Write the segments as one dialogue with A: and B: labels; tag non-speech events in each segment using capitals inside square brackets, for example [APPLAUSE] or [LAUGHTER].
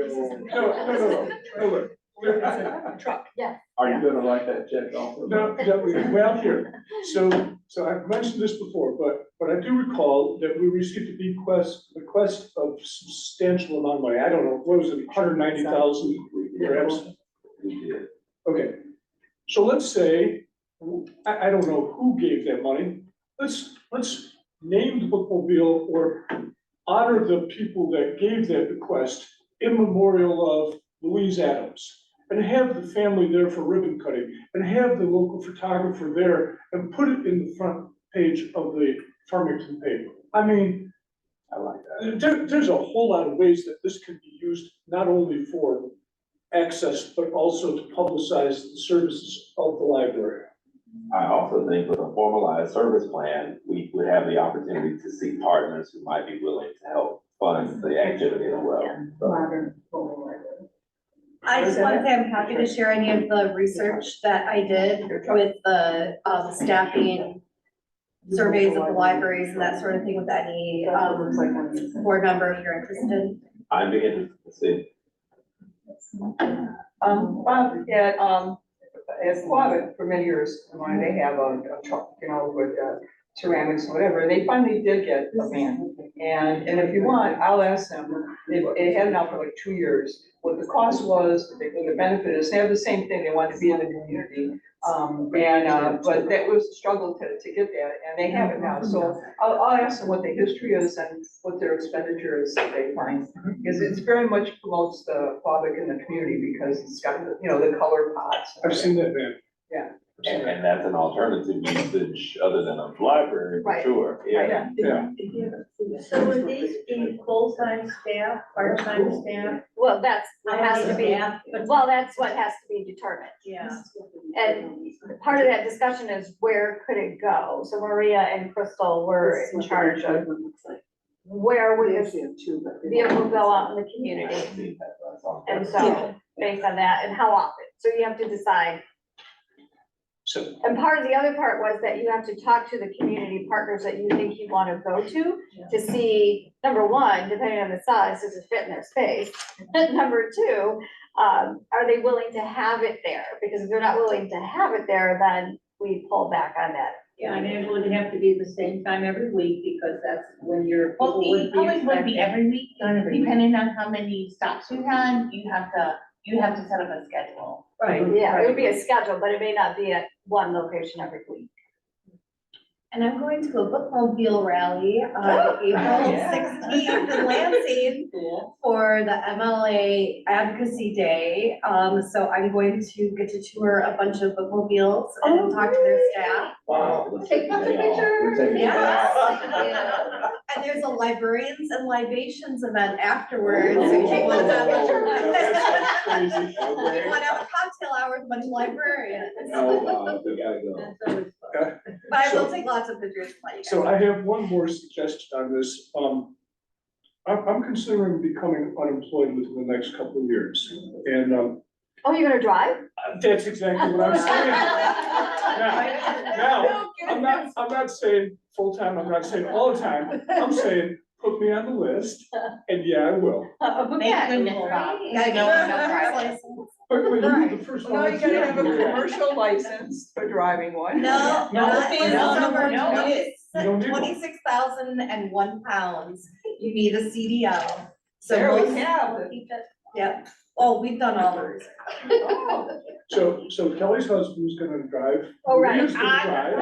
A: criticism.
B: No, no, no, no, no, look. we're-
A: Truck, yeah.
C: Are you gonna write that check off? or
B: No,
C: not?
B: no, we- well, here, so, so I've mentioned this before, but, but I do recall that we received a bequest, request of substantial amount of money, I don't know, what was it, hundred ninety thousand, perhaps?
C: We did.
B: Okay, so let's say, I, I don't know who gave that money, let's, let's name the bookmobile or honor the people that gave that bequest in memorial of Louise Adams. And have the family there for ribbon cutting, and have the local photographer there, and put it in the front page of the Farmington paper. I mean,
C: I like that.
B: there, there's a whole lot of ways that this can be used, not only for access, but also to publicize the services of the library.
C: I also think with a formalized service plan, we would have the opportunity to seek partners who might be willing to help fund the activity as well.
A: Modern, formal library.
D: I just want to say I'm happy to share any of the research that I did with the um, staffing surveys of the libraries and that sort of thing with any
A: That's what it looks
D: um,
A: like on the inside.
D: board member if you're interested.
C: I'm beginning to see,
E: Um, Bob, at, um, as Quabbin for many years, when they have a, a truck, you know, with uh, ceramics, whatever, they finally did get a van. And, and if you want, I'll ask them, they, they had it now for like two years, what the cost was, what the benefit is, they have the same thing, they want to be in the community. Um, and, uh, but that was a struggle to, to get that, and they have it now, so I'll, I'll ask them what the history is and what their expenditure is that they find. Because it's very much promotes the Quabbin in the community because it's got, the you know, the color pots.
B: I've seen that van.
E: Yeah.
B: I've
C: and,
B: seen that.
C: and that's an alternative usage other than a library, for
D: Right.
C: sure, yeah.
B: Yeah.
F: So would these be full-time staff, part-time staff?
A: Well, that's, what has to be,
F: Staff, but-
A: well, that's what has to be determined.
F: Yeah.
A: And part of that discussion is where could it go? So Maria and Crystal were in charge of where would this vehicle go out in the community?
C: I've seen that, that's all.
A: And so, based on that, and how often? So you have to decide.
B: So,
A: And part of the other part was that you have to talk to the community partners that you think you want to go to to see, number one, depending on the size, does it fit in their space? [LAUGHS] And number two, um, are they willing to have it there? Because if they're not willing to have it there, then we pull back on that.
F: Yeah, and it would have to be the same time every week because that's when your
G: Well,
F: people would
G: it
F: be
G: always would
F: expected.
G: be every week,
F: Not every week.
G: depending on how many stops we run, you have to, you have to set up a schedule.
F: Right.
A: Yeah, it would be a schedule, but it may not be at one location every week.
D: And I'm going to a bookmobile rally on
A: Oh,
D: April
E: yeah.
D: sixteenth in Lansing for the MLA Advocacy Day. Um, so I'm going to get to tour a bunch of bookmobiles and talk to their staff.
C: Wow. let's
D: Take
C: the
D: lots of
C: day off. We're
D: pictures.
C: taking the day
D: [LAUGHS]
C: off.
D: Yes, And there's a librarians and libations event afterwards, so you want to have [LAUGHS] a,
B: that's crazy.
D: you want to have a cocktail hour with a bunch of librarians.
C: No, uh, we gotta go.
F: That's always fun.
D: But I will take lots of pictures for you guys.
B: So I have one more suggestion on this, um, I'm, I'm considering becoming unemployed within the next couple of years, and, um,
A: Oh, you're gonna drive?
F: [LAUGHS]
B: that's exactly what
E: [LAUGHS]
A: [LAUGHS]
B: I'm saying. Now,
A: No,
B: I'm not, I'm not saying full-time, I'm not saying all the time, I'm saying, put me on the list, and yeah, I will.
G: Thank
A: Okay.
G: goodness, Bob.
D: Yeah, I
G: No,
D: know.
G: no problem.
B: But, but you're the
D: Right.
B: first one.
E: No, you
B: that's
E: gotta have a
B: here.
E: commercial license for driving one.
D: [LAUGHS] No,
G: No,
D: not in
G: no, no,
D: summer,
G: no.
B: You don't need one.
D: twenty-six thousand and one pounds, you need a CDL. So
E: There we
D: most-
E: have it.
D: Yep, oh, we've done all those.
E: Oh,
B: So, so Kelly's husband's gonna drive.
A: Oh, right.
B: Maria's gonna drive,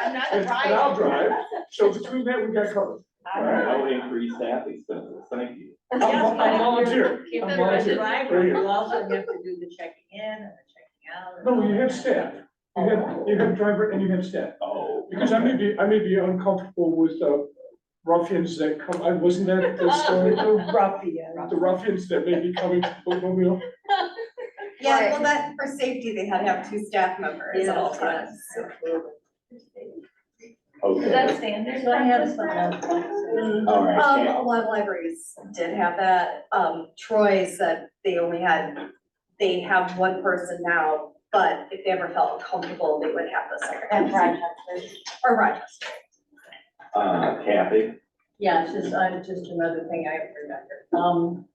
G: I'm not
B: and and I'll
G: driving.
B: drive, so between that, we got covered.
C: All right, no increased staff expenses, thank you.
B: I'm vo- I'm volunteer,
F: You
B: I'm
F: better run the
B: volunteer, right
F: driver,
B: here.
F: you also have to do the checking in and the checking out. and
B: No,
F: all
B: you have
F: that.
B: staff, you have, you have driver and you have staff,
C: Oh.
B: because I may be, I may be uncomfortable with, uh, ruffians that come, I, wasn't that the story though?
F: Ruffian.
B: The ruffians that may be coming to the Mobile?
D: Yeah, well, that, for safety, they had to have two staff members at all
F: Yes,
D: times.
C: Okay.
F: Is that standard practice?
C: All right,
D: Um,
C: Cam-
D: a lot of libraries did have that, um, Troy said they only had, they have one person now, but if they ever felt comfortable, they would have the
F: And
D: secretary,
F: Rochester.
D: or Rochester.
C: Uh, Kathy,
F: Yeah, it's just, I'm, just another thing I remember. Um,